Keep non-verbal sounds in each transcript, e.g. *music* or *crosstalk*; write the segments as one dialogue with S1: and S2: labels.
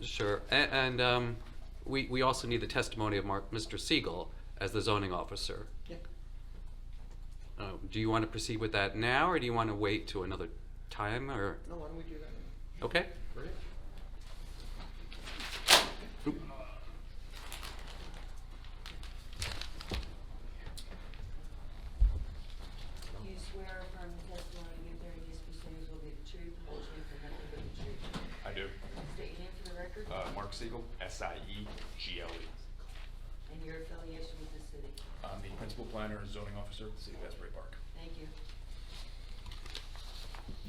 S1: Sure, A- and um, we we also need the testimony of Mark, Mr. Siegel as the zoning officer.
S2: Yep.
S1: Uh, Do you want to proceed with that now, or do you want to wait to another time, or,
S2: No, why don't we do that now?
S1: okay?
S2: Great.
S3: You swear affirm the testimony you give during these proceedings will be the truth, the whole truth, and nothing but the truth.
S4: I do.
S3: State your name for the record
S4: Uh, Mark Siegel, E S-I-E-G-L-E.
S3: and your affiliation with the city.
S4: I'm the principal planner and zoning officer of the city of Asbury Park.
S3: Thank you.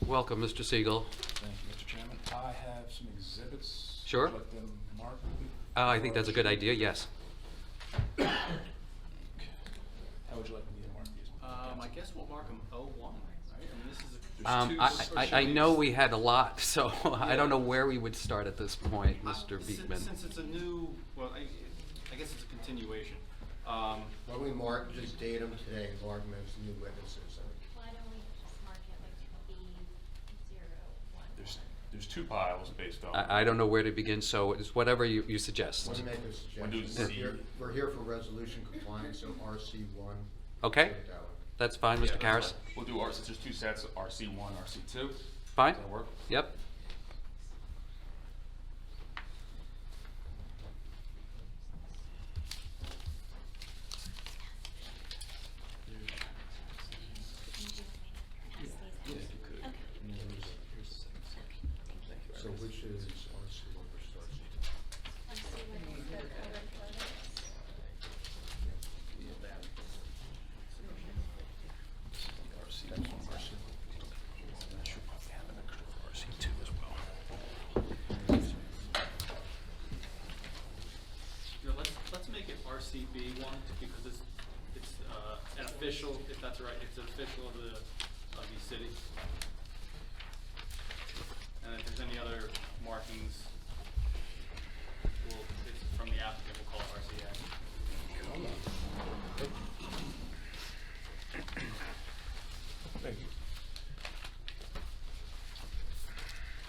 S1: Welcome, Mr. Siegel.
S4: Thank you, Mr. Chairman. I have some exhibits.
S1: Sure.
S4: Would you like them marked?
S1: Uh, I think that's a good idea, yes.
S4: Okay. How would you like me to mark these?
S5: Um, I guess we'll mark them O one, right? I mean, this is a. there's
S1: Um,
S5: two
S1: I, I, I know we had a lot, *laughs* so I don't know
S5: Yeah.
S1: where we would start at this point,
S5: Uh,
S1: Mr.
S5: since-
S1: Beekman.
S5: Since it's a new, well, I, I guess it's a continuation. Um,
S2: Why don't we mark, just date them today, mark them as new witnesses.
S6: Why don't we just mark it like B zero one?
S4: There's, there's two piles based on.
S1: I, I don't know where to begin, so it's whatever you, you suggest.
S2: Want to make a
S4: We'll do
S2: suggestion? We're
S4: C.
S2: here- We're here for resolution compliance, so RC one.
S1: Okay.
S2: Take that one.
S1: That's fine,
S4: Yeah,
S1: Mr.
S4: that's
S1: Karas?
S4: fine. We'll do, R- since there's two sets, RC one, RC two.
S1: Fine?
S4: Does that work?
S1: Yep.
S2: So which is RC one versus RC two?
S4: RC one, RC one. I should probably have an extra RC two as well.
S5: you know, let's, let's make it RCB one because it's, it's, uh, an official, if that's right, it's an official of the, of the city. And if there's any other markings, we'll, it's from the applicant, we'll call it RCA.
S4: Thank you.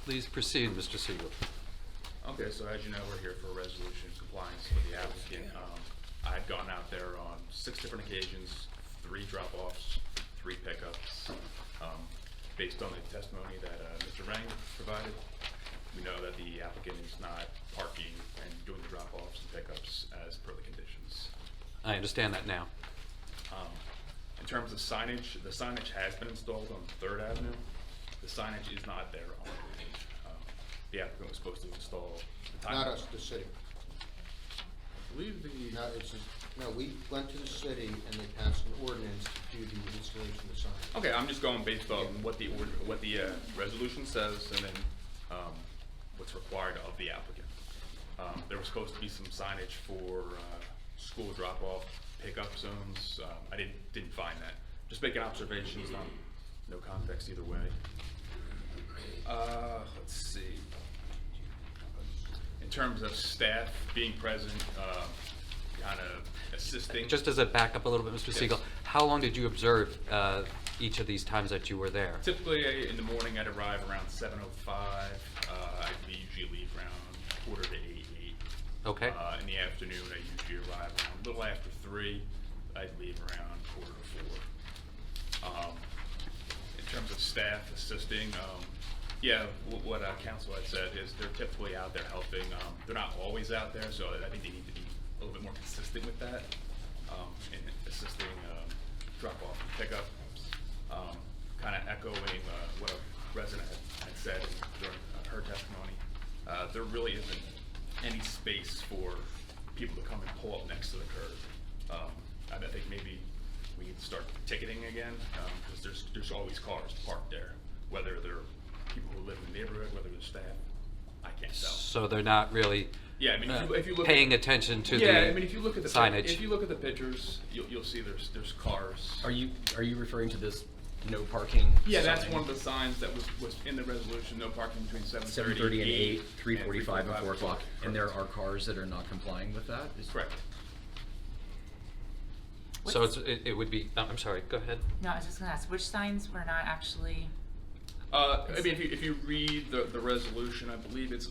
S1: Please proceed, Mr. Siegel.
S7: Okay, so as you know, we're here for a resolution in compliance with the applicant. Um, I've gone out there on six different occasions, three drop-offs, three pickups. Um, Based on the testimony that uh, Mr. Rang provided, we know that the applicant is not parking and doing the drop-offs and pickups as per the conditions.
S1: I understand that now.
S7: Um, In terms of signage, the signage has been installed on Third Avenue. The signage is not there on the page. Um, The applicant was supposed to install. the
S2: Not
S7: time-
S2: us, the city.
S7: I believe the.
S2: No, it's, a- no, we went to the city and they passed an ordinance to do the installation of signs.
S7: Okay, I'm just going based on what the, ord- what the uh, resolution says and then um, what's required of the applicant. Um, There was supposed to be some signage for uh, school drop-off, pickup zones. Um, I didn't, didn't find that. Just making observations, not, no context either way. Uh, Let's see. In terms of staff being present, kind of assisting.
S1: Just as a backup a little bit, Mr.
S7: Yes.
S1: Siegel, how long did you observe uh, each of these times that you were there?
S7: Typically, in the morning, I'd arrive around seven oh five. Uh, I usually leave around quarter to eight, eight.
S1: Okay.
S7: Uh, in the afternoon, I usually arrive around a little after three. I'd leave around quarter to four. Um, in terms of staff assisting, um, yeah, wh- what, uh, council had said is they're typically out there helping. Um, they're not always out there, so I think they need to be a little bit more consistent with that, um, in assisting, um, drop off and pickup. Um, kinda echoing, uh, what a resident had- had said during uh, her testimony. Uh, there really isn't any space for people to come and pull up next to the curb. Um, I I think maybe we need to start ticketing again, because there's, there's always cars parked there, whether they're people who live in the neighborhood, whether they're staff, I can't tell.
S1: So they're not really
S7: Yeah, I mean, if you- if you
S1: uh,
S7: look. at-
S1: paying attention to the
S7: Yeah, I mean, if you look at the, pic- if you
S1: signage.
S7: look at the pictures, you'll, you'll see there's, there's cars.
S8: Are you, are you referring to this no parking?
S7: Yeah, that's
S8: sign?
S7: one of the signs that was, was in the resolution, no parking between seven thirty.
S8: 7:30 and 8, 3:45 and 4 o'clock, and there are cars that are not complying with that? Is-
S7: Correct.
S1: So it's- it it would be, oh, I'm sorry, go ahead.
S9: No, I was just gonna ask, which signs were not actually,
S7: Uh, I mean, if you, if you read the, the resolution, I believe it's